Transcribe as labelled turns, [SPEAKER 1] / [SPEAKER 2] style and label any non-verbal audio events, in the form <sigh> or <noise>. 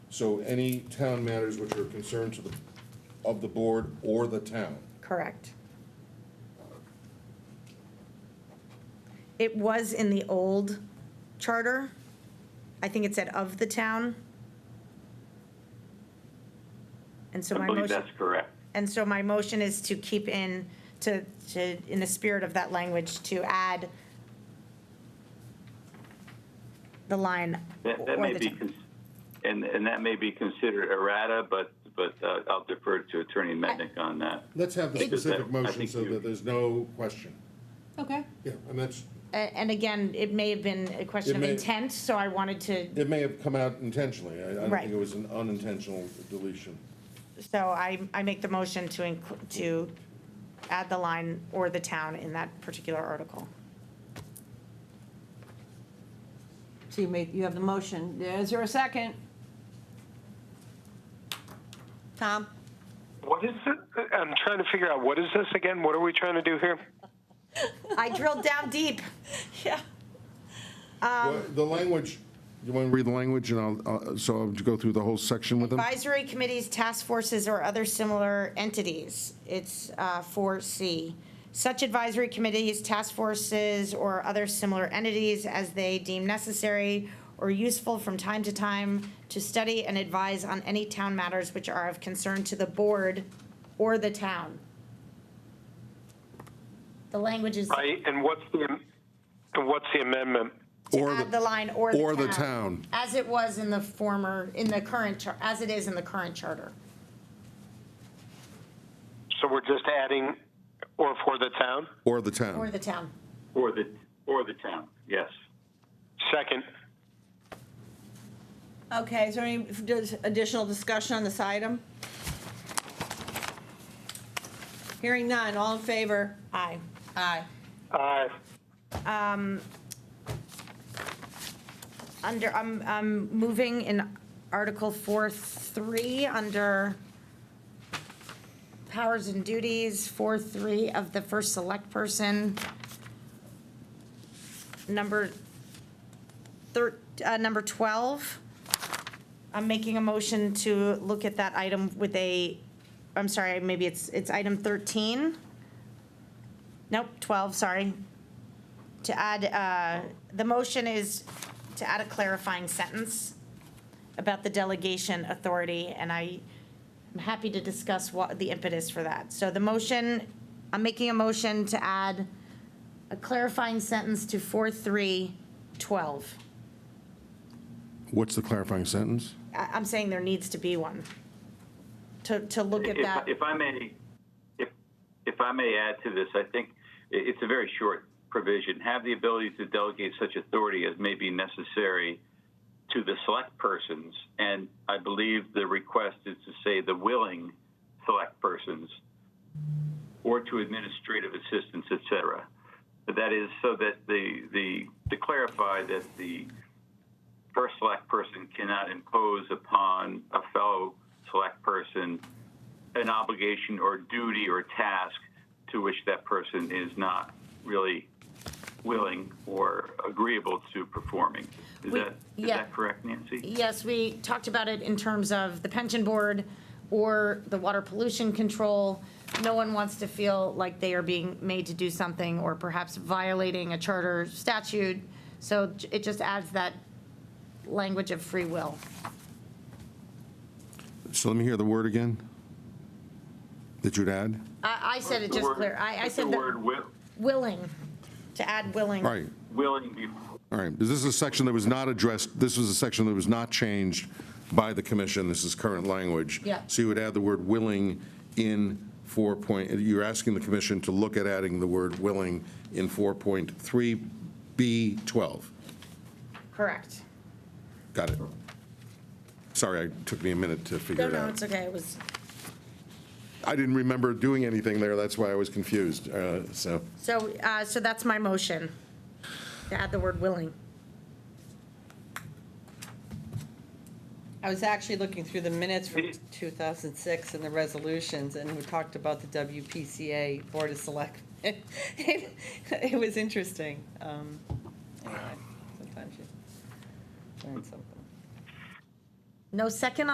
[SPEAKER 1] So any town matters which are concerned to the, of the board or the town.
[SPEAKER 2] Correct. It was in the old charter. I think it said of the town. And so
[SPEAKER 3] I
[SPEAKER 2] my
[SPEAKER 3] believe
[SPEAKER 2] motion,
[SPEAKER 3] that's correct.
[SPEAKER 2] and so my motion is to keep in, to, to, in the spirit of that language, to add the line.
[SPEAKER 3] That, that
[SPEAKER 2] or
[SPEAKER 3] may
[SPEAKER 2] the
[SPEAKER 3] be,
[SPEAKER 2] town.
[SPEAKER 3] cons- and, and that may be considered errata, but, but uh, I'll defer to Attorney Mendick on that.
[SPEAKER 1] Let's have the
[SPEAKER 3] Because that-
[SPEAKER 1] specific
[SPEAKER 3] I
[SPEAKER 1] motion
[SPEAKER 3] think
[SPEAKER 1] so
[SPEAKER 3] you-
[SPEAKER 1] that there's no question.
[SPEAKER 4] Okay.
[SPEAKER 1] Yeah, and that's,
[SPEAKER 2] A- And again, it may have been a
[SPEAKER 1] It
[SPEAKER 2] question of
[SPEAKER 1] may-
[SPEAKER 2] intent, so I wanted to
[SPEAKER 1] it may have come out intentionally. I, I don't
[SPEAKER 2] Right.
[SPEAKER 1] think it was an unintentional deletion.
[SPEAKER 2] So I, I make the motion to include, to add the line or the town in that particular article.
[SPEAKER 4] So you made, you have the motion. Is there a second? Tom?
[SPEAKER 5] What is it? I'm trying to figure out what is this again? What are we trying to do here?
[SPEAKER 2] I drilled down deep.
[SPEAKER 4] Yeah.
[SPEAKER 2] Um,
[SPEAKER 1] Well, The language, you want to read the language and I'll, uh, so I'll go through the whole section with them?
[SPEAKER 2] Advisory committees, task forces, or other similar entities. It's uh, four C. Such advisory committees, task forces, or other similar entities as they deem necessary or useful from time to time to study and advise on any town matters which are of concern to the board or the town. The language is to
[SPEAKER 5] Right? And what's the and what's the amendment?
[SPEAKER 1] Or
[SPEAKER 2] add
[SPEAKER 1] the-
[SPEAKER 2] the line or the town.
[SPEAKER 1] or the town.
[SPEAKER 2] As it was in the former, in the current, char- as it is in the current charter.
[SPEAKER 5] So we're just adding or for the town?
[SPEAKER 1] Or the
[SPEAKER 2] Or
[SPEAKER 1] town.
[SPEAKER 2] the town.
[SPEAKER 3] Or the, or the town, yes.
[SPEAKER 5] Second.
[SPEAKER 4] Okay, is there any does- additional discussion on this item? Hearing none, all in favor?
[SPEAKER 2] Aye.
[SPEAKER 4] Aye.
[SPEAKER 5] Uh,
[SPEAKER 2] Under, I'm, I'm moving in Article 4, 3, under powers and duties, 4, 3 of the first select person. Number thir, uh, number 12. I'm making a motion to look at that item with a, I'm sorry, maybe it's, it's item 13. Nope, 12, sorry. To add, uh, the motion is to add a clarifying sentence about the delegation authority, and I am happy to discuss what the impetus for that. So the motion, I'm making a motion to add a clarifying sentence to 4312.
[SPEAKER 1] What's the clarifying sentence?
[SPEAKER 2] I- I'm saying there needs to be one, to, to look at
[SPEAKER 3] If-
[SPEAKER 2] that.
[SPEAKER 3] If I may, if, if I may add to this, I think i- it's a very short provision. Have the ability to delegate such authority as may be necessary to the select persons, and I believe the request is to say the willing select persons, or to administrative assistance, et cetera. But That is so that the, the, to clarify that the first select person cannot impose upon a fellow select person an obligation or duty or task to which that person is not really willing or agreeable to performing. Is
[SPEAKER 2] We-
[SPEAKER 3] that, is
[SPEAKER 2] yeah.
[SPEAKER 3] that correct, Nancy?
[SPEAKER 2] Yes, we talked about it in terms of the pension board or the water pollution control. No one wants to feel like they are being made to do something or perhaps violating a charter statute. So j- it just adds that language of free will.
[SPEAKER 1] So let me hear the word again that you'd add.
[SPEAKER 2] I, I said it
[SPEAKER 3] The
[SPEAKER 2] just
[SPEAKER 3] word-
[SPEAKER 2] clear. I, I
[SPEAKER 3] the
[SPEAKER 2] said that
[SPEAKER 3] word wi-
[SPEAKER 2] willing, to add willing.
[SPEAKER 1] All right,
[SPEAKER 3] willing before.
[SPEAKER 1] all right. This is a section that was not addressed, this was a section that was not changed by the commission. This is current language.
[SPEAKER 2] Yeah.
[SPEAKER 1] So you would add the word willing in four point, you're asking the commission to look at adding the word willing in 4.3B12.
[SPEAKER 2] Correct.
[SPEAKER 1] Got it. Sorry, it took me a minute to figure
[SPEAKER 2] No,
[SPEAKER 1] it
[SPEAKER 2] no,
[SPEAKER 1] out.
[SPEAKER 2] it's okay. It was,
[SPEAKER 1] I didn't remember doing anything there, that's why I was confused, uh, so.
[SPEAKER 2] so, uh, so that's my motion, to add the word willing.
[SPEAKER 6] I was actually looking through the minutes from
[SPEAKER 3] Yeah.
[SPEAKER 6] 2006 and the resolutions, and we talked about the WPCA Board of Selectmen. <laughs> It it was interesting. Um, anyway, Sometimes you learn something.
[SPEAKER 2] No second